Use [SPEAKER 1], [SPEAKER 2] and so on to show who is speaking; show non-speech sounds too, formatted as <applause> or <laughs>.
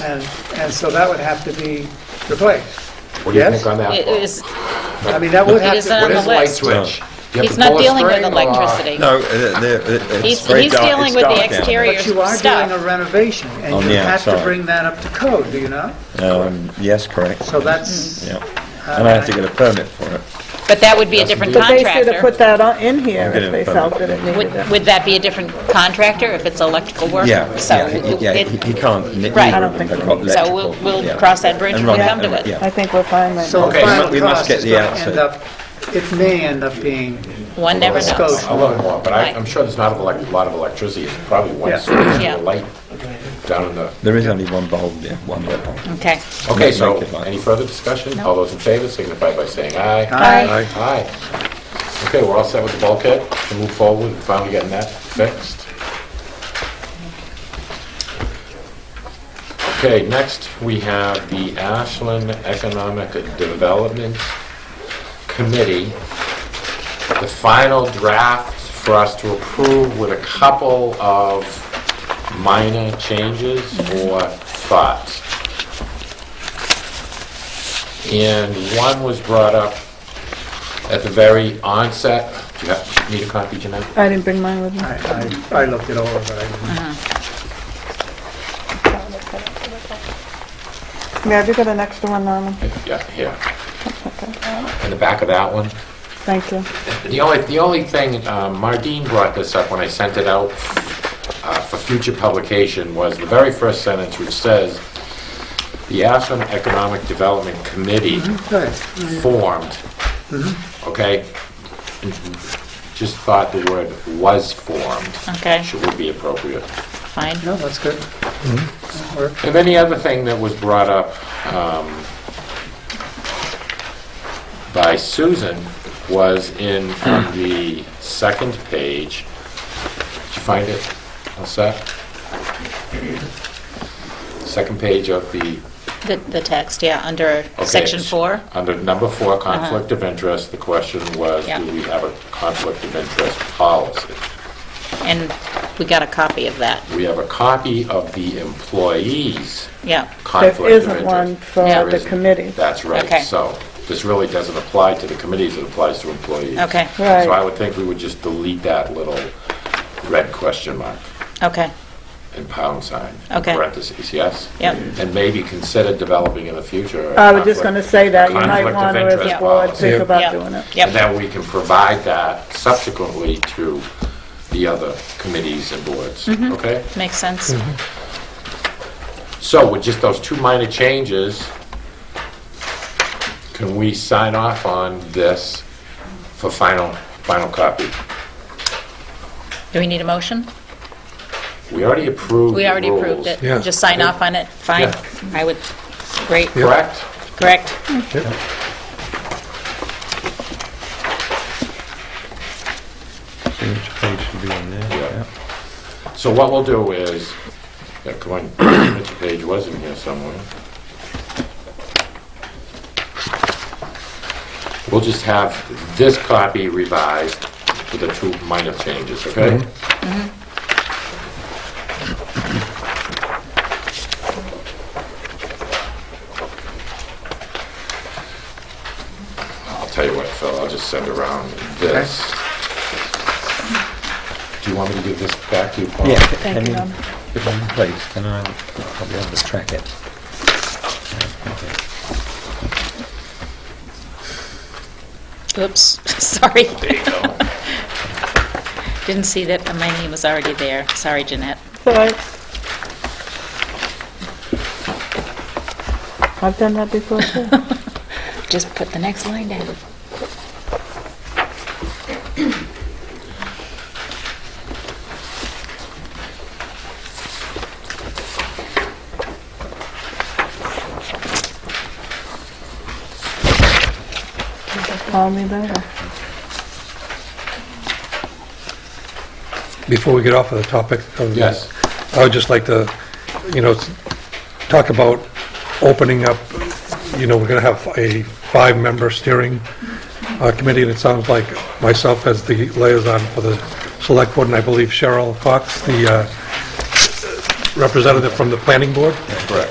[SPEAKER 1] And, and so that would have to be replaced.
[SPEAKER 2] What do you
[SPEAKER 1] Yes?
[SPEAKER 2] think on that?
[SPEAKER 3] It
[SPEAKER 2] Paul?
[SPEAKER 3] is,
[SPEAKER 1] I mean, that would
[SPEAKER 3] It
[SPEAKER 1] have
[SPEAKER 3] is on
[SPEAKER 2] What
[SPEAKER 1] to,
[SPEAKER 3] the
[SPEAKER 2] is a light
[SPEAKER 3] list.
[SPEAKER 2] switch? You have
[SPEAKER 3] he's
[SPEAKER 2] to pull
[SPEAKER 3] not
[SPEAKER 2] a
[SPEAKER 3] dealing with
[SPEAKER 2] string or-
[SPEAKER 3] electricity.
[SPEAKER 4] No, uh, there- it- it's
[SPEAKER 3] He's,
[SPEAKER 4] straight
[SPEAKER 3] he's
[SPEAKER 4] down-
[SPEAKER 3] dealing
[SPEAKER 4] it's
[SPEAKER 3] with the
[SPEAKER 4] down.
[SPEAKER 3] exterior
[SPEAKER 1] but you are doing a
[SPEAKER 3] stuff.
[SPEAKER 1] renovation, and
[SPEAKER 4] Oh,
[SPEAKER 1] you
[SPEAKER 4] yeah,
[SPEAKER 1] have to
[SPEAKER 4] sorry.
[SPEAKER 1] bring that up to code, do you not?
[SPEAKER 4] Um, Yes, correct.
[SPEAKER 1] So that's, uh,
[SPEAKER 4] Yeah.
[SPEAKER 3] Uh,
[SPEAKER 4] And I have to get a permit for it.
[SPEAKER 3] But that would be a different
[SPEAKER 5] But they should have
[SPEAKER 3] contractor.
[SPEAKER 5] put that on- in here
[SPEAKER 4] I'll get
[SPEAKER 5] if
[SPEAKER 4] it
[SPEAKER 5] they
[SPEAKER 4] from-
[SPEAKER 5] felt that it needed
[SPEAKER 3] Would,
[SPEAKER 5] it.
[SPEAKER 3] would that be a different contractor if it's electrical work?
[SPEAKER 4] Yeah,
[SPEAKER 3] So
[SPEAKER 4] yeah, he- yeah,
[SPEAKER 3] it-
[SPEAKER 4] he he can't. n-
[SPEAKER 3] Right.
[SPEAKER 4] neither
[SPEAKER 3] I
[SPEAKER 5] don't think
[SPEAKER 4] the
[SPEAKER 5] so.
[SPEAKER 4] co-
[SPEAKER 3] So we'll,
[SPEAKER 4] electrical,
[SPEAKER 3] we'll
[SPEAKER 4] yeah.
[SPEAKER 3] cross that bridge
[SPEAKER 4] And
[SPEAKER 3] when we
[SPEAKER 4] run-
[SPEAKER 3] come to
[SPEAKER 4] and-
[SPEAKER 3] it.
[SPEAKER 4] yeah.
[SPEAKER 5] I think we're fine right
[SPEAKER 1] so
[SPEAKER 5] now.
[SPEAKER 1] the
[SPEAKER 4] Okay, we mu-
[SPEAKER 1] final
[SPEAKER 4] we must
[SPEAKER 1] cost
[SPEAKER 4] get
[SPEAKER 1] is
[SPEAKER 4] the
[SPEAKER 1] going to
[SPEAKER 4] outside.
[SPEAKER 1] end up, it may end up being
[SPEAKER 3] One never knows.
[SPEAKER 1] Scotia.
[SPEAKER 2] A little more, but I-
[SPEAKER 3] Right.
[SPEAKER 2] I'm sure there's not a elec- lot of electricity. It's probably
[SPEAKER 1] Yeah.
[SPEAKER 2] one switch and
[SPEAKER 3] Yeah.
[SPEAKER 2] a light down in the...
[SPEAKER 4] There is only one bulb there, one bulb.
[SPEAKER 3] Okay.
[SPEAKER 2] Okay,
[SPEAKER 4] Make
[SPEAKER 2] so
[SPEAKER 4] it light.
[SPEAKER 2] any further discussion? All those in favor signify by saying aye.
[SPEAKER 1] Aye.
[SPEAKER 2] Aye. Okay, we're all set with the bulkhead to move forward and finally getting that fixed. Okay, next we have the Ashland Economic Development Committee. The final draft for us to approve with a couple of minor changes or thoughts. And one was brought up at the very onset. Do you have- need a copy, Jeanette?
[SPEAKER 5] I didn't bring mine with me.
[SPEAKER 1] I, I I looked it over, but I didn't.
[SPEAKER 3] Uh-huh.
[SPEAKER 5] Yeah, have you got an extra one, Norman?
[SPEAKER 2] Yeah, here. In the back of that one.
[SPEAKER 5] Thank you.
[SPEAKER 2] The only, the only thing, um, Mardine brought this up when I sent it out uh, for future publication, was the very first sentence which says, "The Ashland Economic Development Committee
[SPEAKER 1] Good.
[SPEAKER 2] formed." Okay? And Just thought the word "was formed"
[SPEAKER 3] Okay,
[SPEAKER 2] should would be appropriate.
[SPEAKER 3] fine.
[SPEAKER 1] No, that's good. That worked.
[SPEAKER 2] And then the other thing that was brought up um, by Susan was in <clears throat> on the second page. Did you find it? All set? Second page of the
[SPEAKER 3] The, the text, yeah, under
[SPEAKER 2] Okay,
[SPEAKER 3] section
[SPEAKER 2] it's
[SPEAKER 3] four. Uh-huh.
[SPEAKER 2] Under number four, conflict of interest, the question was,
[SPEAKER 3] Yeah.
[SPEAKER 2] do we have a conflict of interest policy?
[SPEAKER 3] And we got a copy of that.
[SPEAKER 2] We have a copy of the employees'
[SPEAKER 3] Yeah,
[SPEAKER 2] conflict of
[SPEAKER 5] There
[SPEAKER 2] interest.
[SPEAKER 5] isn't one for
[SPEAKER 3] Yeah.
[SPEAKER 2] There
[SPEAKER 5] the
[SPEAKER 2] isn't.
[SPEAKER 5] committee.
[SPEAKER 2] That's
[SPEAKER 3] Okay.
[SPEAKER 2] right. So this really doesn't apply to the committees, it applies to employees.
[SPEAKER 3] okay,
[SPEAKER 5] Right.
[SPEAKER 2] So I would think we would just delete that little red question mark
[SPEAKER 3] okay,
[SPEAKER 2] and pound sign. in
[SPEAKER 3] Okay.
[SPEAKER 2] Parentheses, yes?
[SPEAKER 3] Yep.
[SPEAKER 2] And maybe consider developing in the future. a
[SPEAKER 5] I was just
[SPEAKER 2] conflict-
[SPEAKER 5] going to say that. You might
[SPEAKER 2] conflict of
[SPEAKER 5] want to, as a
[SPEAKER 2] interest
[SPEAKER 5] board,
[SPEAKER 2] policy.
[SPEAKER 5] think about
[SPEAKER 3] Yeah.
[SPEAKER 5] doing it.
[SPEAKER 3] Yep.
[SPEAKER 2] And then we can provide that subsequently to the other committees and boards,
[SPEAKER 3] Mm-hmm.
[SPEAKER 2] okay?
[SPEAKER 3] makes sense.
[SPEAKER 4] Mm-hmm.
[SPEAKER 2] So with just those two minor changes, can we sign off on this for final, final copy?
[SPEAKER 3] Do we need a motion?
[SPEAKER 2] We already approved
[SPEAKER 3] We
[SPEAKER 2] the
[SPEAKER 3] already approved
[SPEAKER 2] rules,
[SPEAKER 3] it. Just sign off on it, fine. I would, great,
[SPEAKER 2] Correct?
[SPEAKER 3] correct.
[SPEAKER 6] Which page should be on there?
[SPEAKER 2] Yeah. So what we'll do is, yeah, come on, Mr. Page was in here somewhere. We'll just have this copy revised with the two minor changes, okay? I'll tell you what, Phil, I'll just send around this. Do you want me to give this back to you, Paul?
[SPEAKER 4] Yeah, I
[SPEAKER 5] you,
[SPEAKER 4] mean,
[SPEAKER 5] Norm.
[SPEAKER 4] if I'm pleased, then I'll I'll be able to track it.
[SPEAKER 3] Oops, <laughs> sorry,
[SPEAKER 2] There you go.
[SPEAKER 3] <laughs> didn't see that my name was already there. Sorry, Jeanette.
[SPEAKER 5] So I- I've done that before, too.
[SPEAKER 3] Just put the next line down.
[SPEAKER 5] Call me later.
[SPEAKER 6] Before we get off of the topic of
[SPEAKER 2] Yes.
[SPEAKER 6] this, I would just like to, you know, s- talk about opening up, you know, we're going to have a five-member steering uh, committee, and it sounds like myself as the liaison for the select board, and I believe Cheryl Cox, the uh, representative from the planning board.
[SPEAKER 2] Correct.